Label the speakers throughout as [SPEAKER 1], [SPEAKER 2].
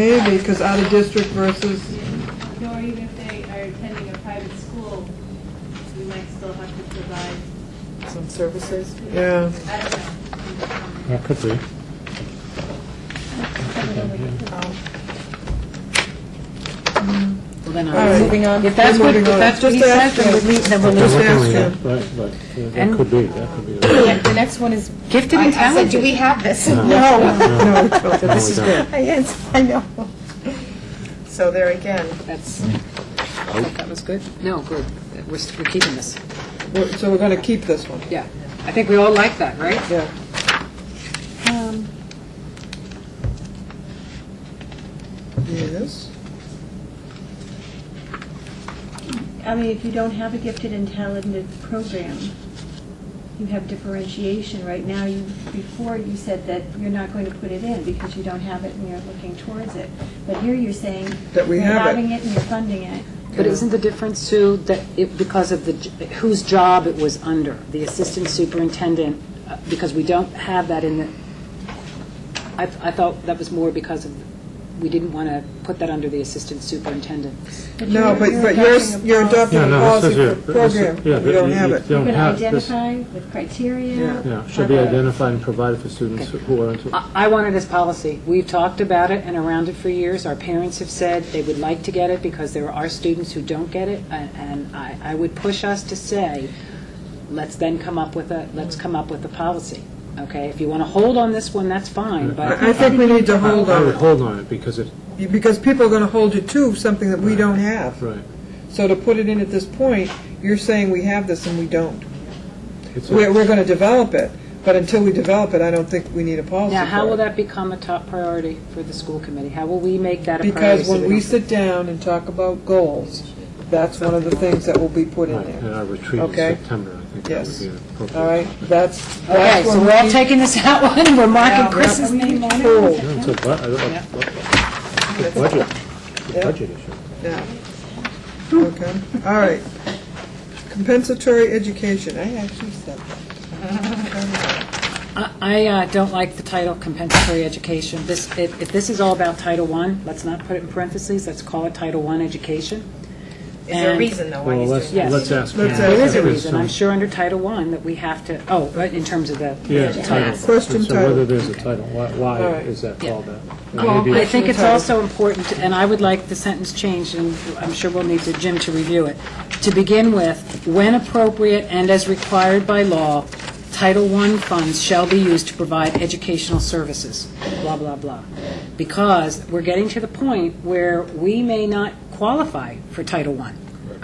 [SPEAKER 1] Maybe, because out of district versus,
[SPEAKER 2] Nor even if they are attending a private school, we might still have to provide,
[SPEAKER 3] Some services?
[SPEAKER 1] yeah.
[SPEAKER 2] I don't know.
[SPEAKER 4] That could be.
[SPEAKER 3] Well, then
[SPEAKER 1] All right.
[SPEAKER 3] I'm moving on.
[SPEAKER 5] uh, If that's what, if
[SPEAKER 1] Moving on.
[SPEAKER 5] that's what he
[SPEAKER 1] Just
[SPEAKER 5] said,
[SPEAKER 1] ask
[SPEAKER 5] then we'll
[SPEAKER 1] him.
[SPEAKER 5] leave, then we'll
[SPEAKER 1] Just
[SPEAKER 5] leave.
[SPEAKER 1] ask
[SPEAKER 4] Yeah,
[SPEAKER 1] him.
[SPEAKER 4] Right, but uh, that
[SPEAKER 5] And-
[SPEAKER 4] could be, that could be.
[SPEAKER 5] Yeah, The next one is.
[SPEAKER 6] Gifted and
[SPEAKER 5] I- I said,
[SPEAKER 6] talented.
[SPEAKER 5] Do we have this?
[SPEAKER 1] No, we
[SPEAKER 4] No,
[SPEAKER 1] don't.
[SPEAKER 4] we
[SPEAKER 3] This is
[SPEAKER 4] don't.
[SPEAKER 3] good.
[SPEAKER 5] Yes, I know.
[SPEAKER 3] So there again,
[SPEAKER 5] That's, that was good. No, good. We're, s- we're keeping this.
[SPEAKER 1] We're- So we're going to keep this one,
[SPEAKER 5] Yeah. I think we all like that, right?
[SPEAKER 1] yeah.
[SPEAKER 7] Um,
[SPEAKER 1] Yes.
[SPEAKER 7] I mean, if you don't have a gifted and talented program, you have differentiation. Right now, you, before you said that you're not going to put it in because you don't have it and you're looking towards it. But here you're saying.
[SPEAKER 1] That we
[SPEAKER 7] you're
[SPEAKER 1] have it.
[SPEAKER 7] Having it and you're funding it.
[SPEAKER 5] But isn't the difference, Sue, that it, because of the, j- whose job it was under, the assistant superintendent, uh, because we don't have that in the, I, I thought that was more because of, we didn't want to put that under the assistant superintendent.
[SPEAKER 1] No,
[SPEAKER 7] you're-
[SPEAKER 1] but,
[SPEAKER 7] you're
[SPEAKER 1] but you're,
[SPEAKER 7] adopting a
[SPEAKER 1] you're adopting
[SPEAKER 7] policy.
[SPEAKER 4] Yeah,
[SPEAKER 1] a
[SPEAKER 4] no, this
[SPEAKER 1] policy
[SPEAKER 4] is
[SPEAKER 1] for
[SPEAKER 4] it. This is-
[SPEAKER 1] program,
[SPEAKER 4] yeah,
[SPEAKER 1] we don't
[SPEAKER 4] you-
[SPEAKER 1] have
[SPEAKER 4] you
[SPEAKER 1] it.
[SPEAKER 4] don't
[SPEAKER 7] You're going
[SPEAKER 4] have
[SPEAKER 7] to
[SPEAKER 4] this-
[SPEAKER 7] identify with criteria.
[SPEAKER 4] Yeah, should be identified and provided for students who are,
[SPEAKER 1] Uh,
[SPEAKER 4] into-
[SPEAKER 5] I I wanted this policy. We've talked about it and around it for years. Our parents have said they would like to get it because there are students who don't get it, and- and I I would push us to say, let's then come up with a, let's come up with a policy, okay? If you want to hold on this one, that's fine,
[SPEAKER 1] I I
[SPEAKER 5] but
[SPEAKER 1] think we need to hold
[SPEAKER 4] I would
[SPEAKER 1] on,
[SPEAKER 4] Oh, hold on it because it,
[SPEAKER 1] it, because people are going to hold you to something that we don't have.
[SPEAKER 4] right.
[SPEAKER 1] So to put it in at this point, you're saying we have this and we don't.
[SPEAKER 4] It's a-
[SPEAKER 1] We're, we're going to develop it, but until we develop it, I don't think we need a policy
[SPEAKER 5] now, how
[SPEAKER 1] for
[SPEAKER 5] will
[SPEAKER 1] it.
[SPEAKER 5] that become a top priority for the school committee? How will we make that a priority?
[SPEAKER 1] Because
[SPEAKER 5] so
[SPEAKER 1] when we
[SPEAKER 5] don't-
[SPEAKER 1] sit down and talk about goals, that's one of the things that will be put in
[SPEAKER 4] Right, and
[SPEAKER 1] there,
[SPEAKER 4] our retreat in
[SPEAKER 1] Okay.
[SPEAKER 4] September, I think that
[SPEAKER 1] Yes.
[SPEAKER 4] would be appropriate.
[SPEAKER 1] all right? That's,
[SPEAKER 5] Okay,
[SPEAKER 1] that's
[SPEAKER 5] so
[SPEAKER 1] when
[SPEAKER 5] we're all
[SPEAKER 1] we
[SPEAKER 5] taking this out one, and we're marking Chris's name on it?
[SPEAKER 1] pull.
[SPEAKER 4] Yeah, it's a bu- a- a- a budget, it's a
[SPEAKER 1] Yeah.
[SPEAKER 4] budget issue.
[SPEAKER 1] Yeah. Okay, all right. Compensatory education, I actually said that.
[SPEAKER 5] I- I uh, don't like the title compensatory education. This, if if this is all about Title I, let's not put it in parentheses, let's call it Title I education.
[SPEAKER 3] is there a
[SPEAKER 5] And-
[SPEAKER 3] reason though why
[SPEAKER 4] Well,
[SPEAKER 3] he's doing
[SPEAKER 4] let's,
[SPEAKER 3] that?
[SPEAKER 4] let's
[SPEAKER 5] Yes.
[SPEAKER 4] ask.
[SPEAKER 1] Let's ask
[SPEAKER 4] Pam
[SPEAKER 5] There is a
[SPEAKER 4] if there's
[SPEAKER 5] reason,
[SPEAKER 4] some-
[SPEAKER 5] I'm sure under Title I that we have to, oh, right, in terms of the,
[SPEAKER 4] Yeah, title.
[SPEAKER 1] Question
[SPEAKER 4] So whether
[SPEAKER 1] title.
[SPEAKER 4] there's a title, why, why
[SPEAKER 1] All right.
[SPEAKER 4] is that
[SPEAKER 5] Yeah.
[SPEAKER 4] called that?
[SPEAKER 5] Well,
[SPEAKER 4] Maybe
[SPEAKER 5] I
[SPEAKER 4] it's-
[SPEAKER 5] think it's also important, and I would like the sentence changed, and I'm sure we'll need to, Jim to review it. To begin with, when appropriate and as required by law, Title I funds shall be used to provide educational services, blah, blah, blah. Because we're getting to the point where we may not qualify for Title I,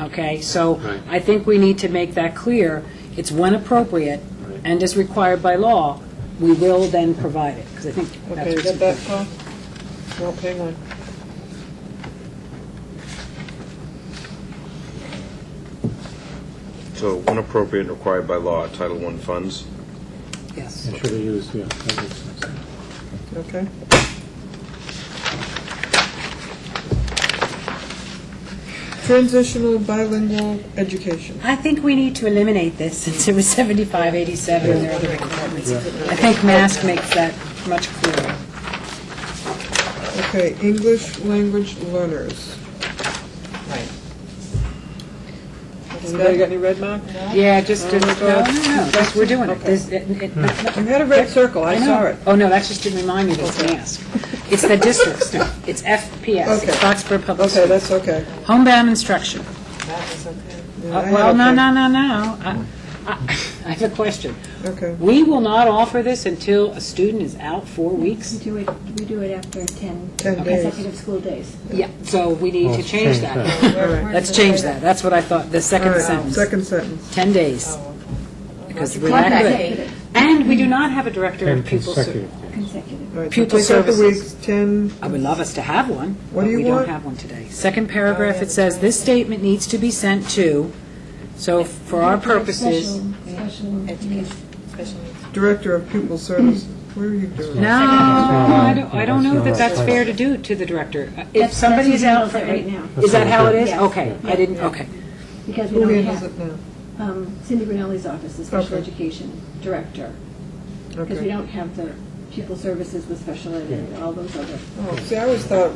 [SPEAKER 5] okay? So
[SPEAKER 4] Right.
[SPEAKER 5] I think we need to make that clear. It's when appropriate and as required by law, we will then provide it, because I think that's
[SPEAKER 1] Okay, you
[SPEAKER 5] what's
[SPEAKER 1] got that,
[SPEAKER 5] important.
[SPEAKER 1] Paul? Nope, hang on.
[SPEAKER 8] So when appropriate and required by law, Title I funds.
[SPEAKER 5] Yes.
[SPEAKER 4] It should be used, yeah, that makes sense.
[SPEAKER 1] Okay. Transitional bilingual education.
[SPEAKER 5] I think we need to eliminate this, since it was 75, 87, and there are other requirements. I think mask makes that much clearer.
[SPEAKER 1] Okay, English language learners.
[SPEAKER 3] Right.
[SPEAKER 1] Anybody got any red mark?
[SPEAKER 5] Yeah, just,
[SPEAKER 1] Oh,
[SPEAKER 5] just,
[SPEAKER 1] my
[SPEAKER 5] no,
[SPEAKER 1] God.
[SPEAKER 5] no, no, just, we're doing it. This- it- it-
[SPEAKER 1] You had a red circle, Hmm. I
[SPEAKER 5] know.
[SPEAKER 1] saw it.
[SPEAKER 5] Oh, no, that's just to remind me that it's mask. It's the districts, no, it's FPS,
[SPEAKER 1] Okay.
[SPEAKER 5] it's Foxborough Public
[SPEAKER 1] Okay,
[SPEAKER 5] Schools.
[SPEAKER 1] that's okay.
[SPEAKER 5] Homebound instruction.
[SPEAKER 3] That was okay.
[SPEAKER 1] Yeah, I
[SPEAKER 5] Uh,
[SPEAKER 1] had
[SPEAKER 5] Well, no,
[SPEAKER 1] okay.
[SPEAKER 5] no, no, no. I- I I have a question.
[SPEAKER 1] Okay.
[SPEAKER 5] We will not offer this until a student is out four weeks?
[SPEAKER 7] We do it, we do it after 10
[SPEAKER 1] Ten days.
[SPEAKER 7] consecutive school days.
[SPEAKER 5] Yeah, so we need
[SPEAKER 4] Well,
[SPEAKER 5] to
[SPEAKER 4] let's
[SPEAKER 5] change
[SPEAKER 4] Oh, change
[SPEAKER 5] that.
[SPEAKER 4] that.
[SPEAKER 5] Let's change that. That's what I thought, the
[SPEAKER 1] All
[SPEAKER 5] second
[SPEAKER 1] right,
[SPEAKER 5] sentence.
[SPEAKER 1] Second sentence.
[SPEAKER 5] 10 days. Because we're
[SPEAKER 3] Not
[SPEAKER 5] not
[SPEAKER 3] that
[SPEAKER 5] good.
[SPEAKER 3] day.
[SPEAKER 5] And we do not have a director
[SPEAKER 4] And
[SPEAKER 5] of pupil service.
[SPEAKER 4] consecutive.
[SPEAKER 7] Consecutive.
[SPEAKER 1] All right, so
[SPEAKER 5] Pupil
[SPEAKER 1] take out the
[SPEAKER 5] services.
[SPEAKER 1] weeks, 10,
[SPEAKER 5] I would love us to have one,
[SPEAKER 1] What
[SPEAKER 5] but
[SPEAKER 1] do you
[SPEAKER 5] we don't
[SPEAKER 1] want?
[SPEAKER 5] have one today. Second paragraph, it says, "This statement needs to be sent to," so for our purposes.
[SPEAKER 7] Special, special
[SPEAKER 3] Education, special needs.
[SPEAKER 1] director of pupil services. Where are you doing?
[SPEAKER 5] No, I don't, I don't know that
[SPEAKER 4] Uh, That's
[SPEAKER 5] that's
[SPEAKER 4] not-
[SPEAKER 5] fair to do to the director. Uh, If
[SPEAKER 7] That's-
[SPEAKER 5] somebody
[SPEAKER 7] that's
[SPEAKER 5] is out for
[SPEAKER 7] what it
[SPEAKER 5] eight
[SPEAKER 7] is right
[SPEAKER 5] Is that how it is?
[SPEAKER 7] Yes.
[SPEAKER 5] Okay, I didn't,
[SPEAKER 7] Yeah.
[SPEAKER 5] okay.
[SPEAKER 7] Because we
[SPEAKER 1] Who
[SPEAKER 7] don't
[SPEAKER 1] handles
[SPEAKER 7] have,
[SPEAKER 1] it now?
[SPEAKER 7] um, Cindy Brunelli's office, the special
[SPEAKER 1] Okay.
[SPEAKER 7] education director. Because we
[SPEAKER 1] Okay.
[SPEAKER 7] don't have the pupil services with special ed and all those other
[SPEAKER 1] Oh, See, I always thought